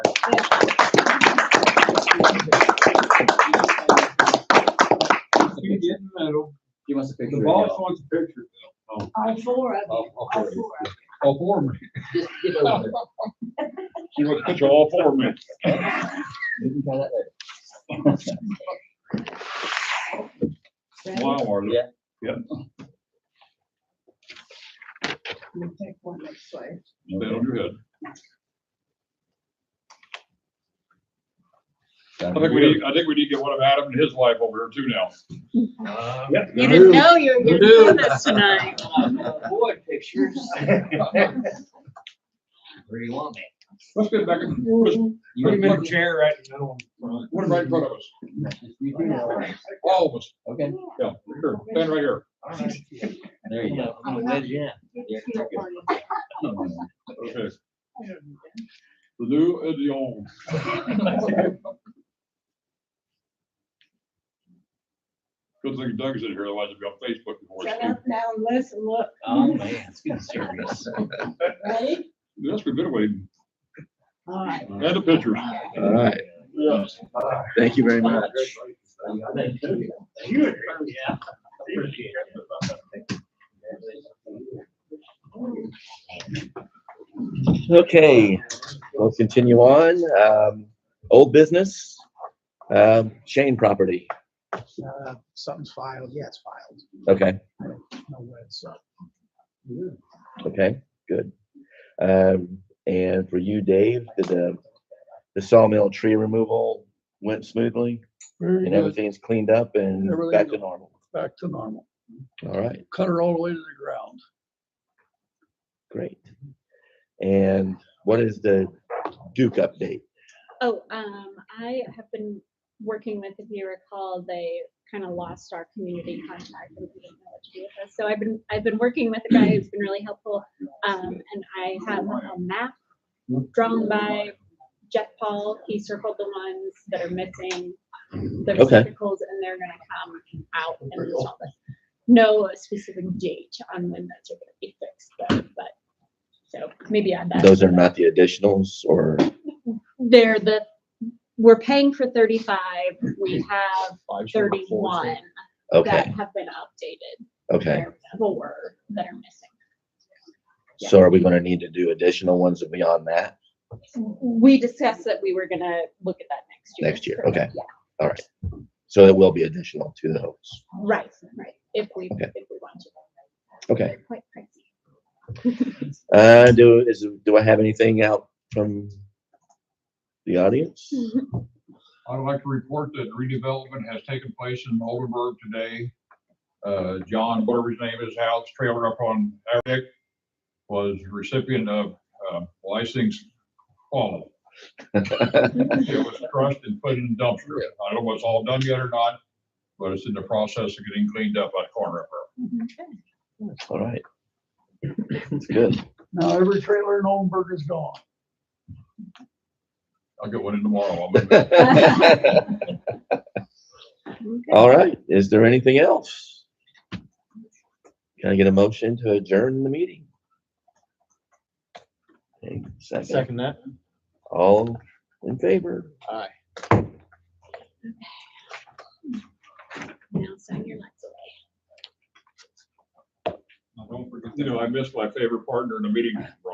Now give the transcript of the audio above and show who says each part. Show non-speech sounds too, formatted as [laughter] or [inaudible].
Speaker 1: You get in the middle,
Speaker 2: Give us a picture.
Speaker 1: the boss wants a picture.
Speaker 3: All four of you,
Speaker 1: All- all
Speaker 3: all
Speaker 1: four.
Speaker 3: four. of
Speaker 1: Oh, for me.
Speaker 2: Just get over there.
Speaker 1: She wants a picture all for [laughs] me.
Speaker 2: We can try that later.
Speaker 3: you. Ready?
Speaker 1: Wow, Arlo.
Speaker 2: Yeah.
Speaker 3: Let me take one this way.
Speaker 1: Stay on your head. I think we need, I think we need to get one of Adam and his wife over here too now. Uh,
Speaker 4: You didn't know you were gonna do this tonight.
Speaker 2: Boy, pictures. Where do you want me?
Speaker 1: Let's get back and forth.
Speaker 2: You
Speaker 1: Put him in a
Speaker 2: want-
Speaker 1: chair right in the middle. Put him right in front of us.
Speaker 2: you do that way.
Speaker 1: All of us.
Speaker 2: Okay.
Speaker 1: Yeah, here, stand right here.
Speaker 2: There you go. I'm gonna let you in.
Speaker 3: It's your one.
Speaker 1: Okay. The new and the old. [laughs] Good thing Doug's in here, otherwise it'd be on Facebook before.
Speaker 3: Shut
Speaker 1: it's-
Speaker 3: up now and listen, look.
Speaker 2: Oh, man, it's getting serious.
Speaker 3: Ready?
Speaker 1: Yes, we've been waiting.
Speaker 3: All right.
Speaker 1: And the pictures.
Speaker 5: All right,
Speaker 1: Yes.
Speaker 5: thank you very much.
Speaker 2: Yeah. Appreciate it.
Speaker 5: Okay, we'll continue on. Um, old business, um, Shane property.
Speaker 6: Uh, Something's filed, yeah, it's filed,
Speaker 5: Okay,
Speaker 6: no way, uh, so.
Speaker 5: okay, good. Um, and for you, Dave, did the, the sawmill tree removal went smoothly and everything's cleaned up and back to normal?
Speaker 6: Back to normal,
Speaker 5: All right,
Speaker 6: cut her all the way to the ground.
Speaker 5: great. And what is the Duke update?
Speaker 4: Oh, um, I have been working with, if you recall, they kind of lost our community contact. and we didn't know what to do with us. So I've been, I've been working with a guy who's been really helpful. Um, and I have a map drawn by Jeff Paul. He circled the ones that are missing. The
Speaker 5: Okay.
Speaker 4: receptacles and they're gonna come out and install this. No specific date on when those are gonna be fixed, though, but, so maybe add that.
Speaker 5: Those
Speaker 4: to
Speaker 5: are
Speaker 4: the-
Speaker 5: not the additionals or,
Speaker 4: they're the, we're paying for thirty-five,
Speaker 5: Mm-hmm.
Speaker 4: we have thirty-one that
Speaker 5: okay,
Speaker 4: have been updated.
Speaker 5: okay.
Speaker 4: There are Four that are missing.
Speaker 5: So are we gonna need to do additional ones beyond that?
Speaker 4: We discussed that we were gonna look at that next year.
Speaker 5: Next year, okay.
Speaker 4: Yeah,
Speaker 5: So it will be additional to those.
Speaker 4: right, right, if we,
Speaker 5: Okay.
Speaker 4: if we want to.
Speaker 5: Okay.
Speaker 4: They're Quite pricey.
Speaker 5: Uh, do, is, do I have anything out from the audience?
Speaker 1: I would like to report that redevelopment has taken place in Oldenburg today. Uh, John, whatever his name is, house trailer up on Eric was recipient of, uh, license quality. It was crushed and put in dumpster. I don't know if it's all done yet or not, but it's in the process of getting cleaned up by the corner up there.
Speaker 4: Mm-hmm.
Speaker 5: All right. That's good.
Speaker 6: Now, every trailer in Oldenburg is gone.
Speaker 1: I'll get one in tomorrow. I'll move it.
Speaker 4: Okay.
Speaker 5: All right. Is there anything else? Can I get a motion to adjourn the meeting? Okay, Second,
Speaker 2: Second that.
Speaker 5: all in favor?
Speaker 4: Now sign your lights away.
Speaker 1: Don't forget, You know, I missed my favorite partner in the meeting.